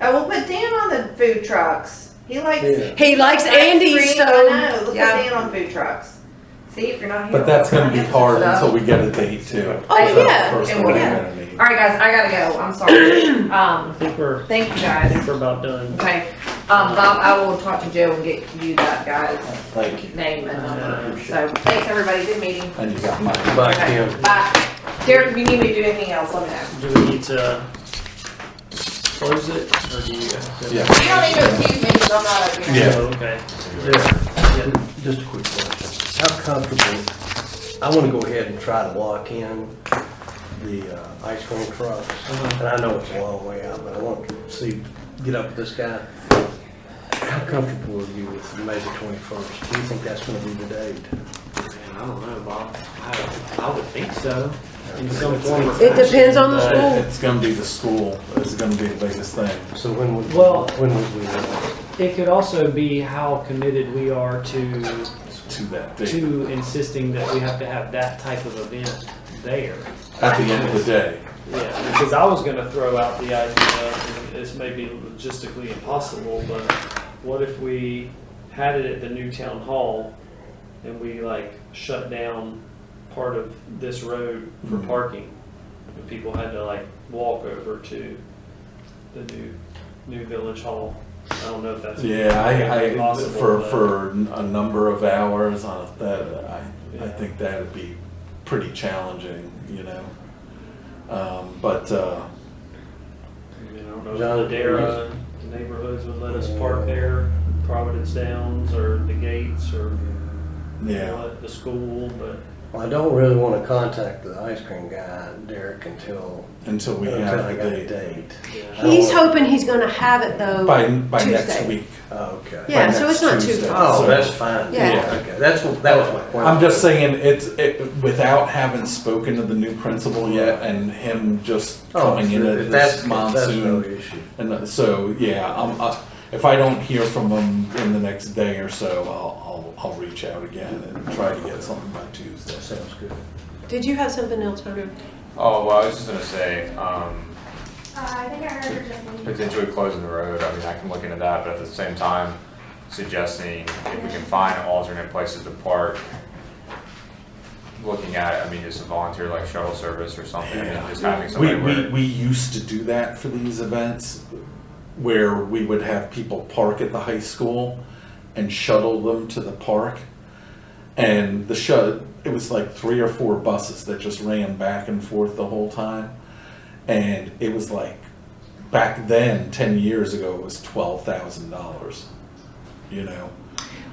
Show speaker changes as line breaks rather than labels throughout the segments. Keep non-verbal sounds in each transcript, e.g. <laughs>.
I will put Dan on the food trucks. He likes.
Yeah.
He likes
That's
Andy,
free.
so
I know. Look
yeah.
at Dan on food trucks. See if you're not here.
But that's gonna be hard
So-
until we get a date too.
Oh,
So that's the
yeah.
first
It
one
will.
we're gonna need.
All right, guys, I gotta go. I'm
<coughs>
sorry.
I
um,
think we're,
thank you
I
guys.
think we're about done.
Okay, um, Bob, I will talk to Joe and get you that guy's
Thank you.
name and number.
Appreciate
So thanks everybody. Good meeting.
And you got mine.
Bye,
Okay.
Kim.
Bye. Derek, if you need me to do anything else, let me know.
Do we need to close it or do you? have to-
Yeah.
You don't need to excuse me because I'm not up here.
Yeah.
Oh, Okay.
Yeah, Just a quick question. How comfortable, I wanna go ahead and try to lock in the uh, ice cream trucks.
Uh-huh.
And I know it's a long way out, but I want to see, get up with this guy. How comfortable are you with May the twenty-first? Do you think that's gonna be the date?
Man, I don't know, Bob. I, I would think so. In some form or
it depends on the
fashion,
school.
uh, It's gonna be the school, is gonna be the biggest thing.
So when would,
Well-
when would we know?
but It could also be how committed we are to,
to that date,
to insisting that we have to have that type of event there.
at the end of the day.
Yeah, because I was gonna throw out the idea, and this may be logistically impossible, but what if we had it at the new town hall and we like shut down part of this road for
Mhm.
parking? And people had to like walk over to the new, new village hall. I don't know if that's.
Yeah, I, I,
Possible,
for,
but-
for a number of hours on a- that, I, I
Yeah.
think that'd be pretty challenging, you know? Um, but, uh,
I mean, I don't know
John,
if Ladera, the neighborhoods would let us park there, Providence Downs or the gates or you
yeah,
know, at the school, but.
Well, I don't really wanna contact the ice cream guy, Derek, until,
until we
until
have
I
a
got a
date.
date.
Yeah.
He's
Oh.
hoping he's going to have it though.
By, by next
Tuesday.
week.
Oh, Okay.
Yeah,
by
so
next
it's not too
Tuesday.
far.
Oh,
So-
that's fine.
Yeah.
Okay, that's, that was my question.
I'm just saying, it's, it, without having spoken to the new principal yet and him just
Oh,
coming in
sure,
at this
that's- That's no
monsoon.
issue.
And uh, so, yeah, I'm, uh, if I don't hear from them in the next day or so, I'll, I'll, I'll reach out again and try to get something by Tuesday.
That sounds good.
Did you have something else, Hunter?
Oh, well, I was just gonna say, um,
Uh, I think I heard her just leave.
potentially closing the road, I mean, I can look into that, but at the same time, suggesting if we can find alternate places to park. Looking at, it, I mean, just a volunteer like shuttle service or something, I mean, just having
We,
somebody
we,
where.
we used to do that for these events where we would have people park at the high school and shuttle them to the park. And the shut, it was like three or four buses that just ran back and forth the whole time. And it was like, back then, ten years ago, it was twelve thousand dollars, you know?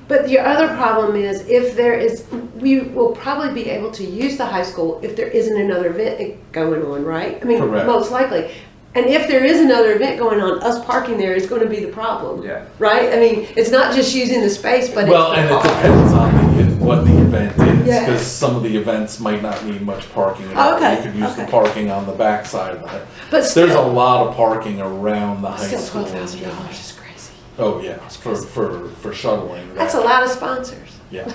But your other problem is if there is, we will probably be able to use the high school if there isn't another event going on, right? I mean,
Correct.
most likely. And if there is another event going on, us parking there is going to be the problem,
Yeah,
right? I mean, it's not just using the space, but
Well,
it's
and
the
it
car.
depends on the, e, what the event is,
Yeah.
because some of the events might not need much parking. at all.
Okay,
You could use the
okay.
parking on the backside of the,
but
there's a
still,
lot of parking around the high
still
school.
twelve thousand dollars is crazy.
Oh, yeah, for, for, for shuttling.
That's a
that.
lot of sponsors. <laughs>
Yeah.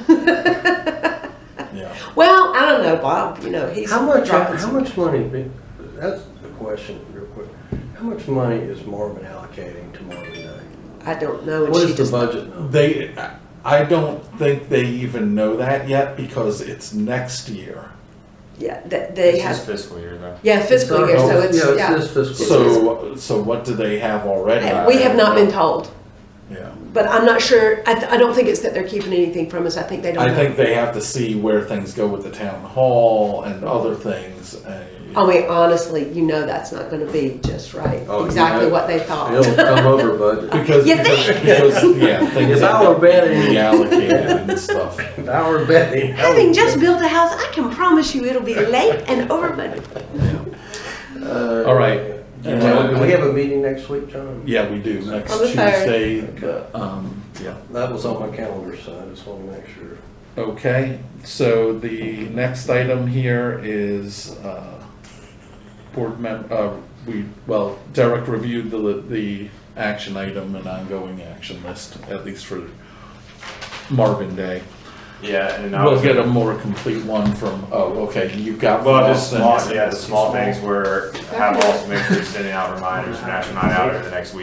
Yeah.
Well, I don't know, Bob. You know, he's
How much, uh,
dropping
how much money, be- that's the question real quick. How much money is Marvin allocating to Marvin Day?
I don't know. And
What
she
is the
does not-
budget number?
They, I don't think they even know that yet because it's next year.
Yeah, that they
it's just
have.
fiscal year though.
Yeah, fiscal year. So it's yeah.
Yeah, it's this fiscal. year.
So, so what do they have already?
And we have not been told,
Yeah.
but I'm not sure. I, th- I don't think it's that they're keeping anything from us. I think they don't.
I
know.
think they have to see where things go with the town hall and other things. uh,
I mean, honestly, you know, that's not going to be just right.
Oh, you
exactly
know.
what they thought.
It'll come over budget. <laughs>
Because,
<laughs> You
because,
think? <laughs>
because, yeah, things
If I
have to
were betting-
be reallocated and stuff.
If I were betting. I would-
Having just built a house, I can promise you it'll be late and over budget.
Uh,
All right.
Do we have a meeting next week, John?
Yeah, we do, next
On the third.
Tuesday, the, um, yeah.
That was on my calendar, so I just want to make sure.
Okay, so the next item here is, uh, board mem, uh, we, well, Derek reviewed the, the action item and ongoing action list, at least for Marvin Day.
Yeah, and I was.
We'll get a more complete one from, oh, okay, you've got.
Well,
from
just
us and-
small, yeah, the small things where have also make sure you're sending out reminders and action night out over the next week.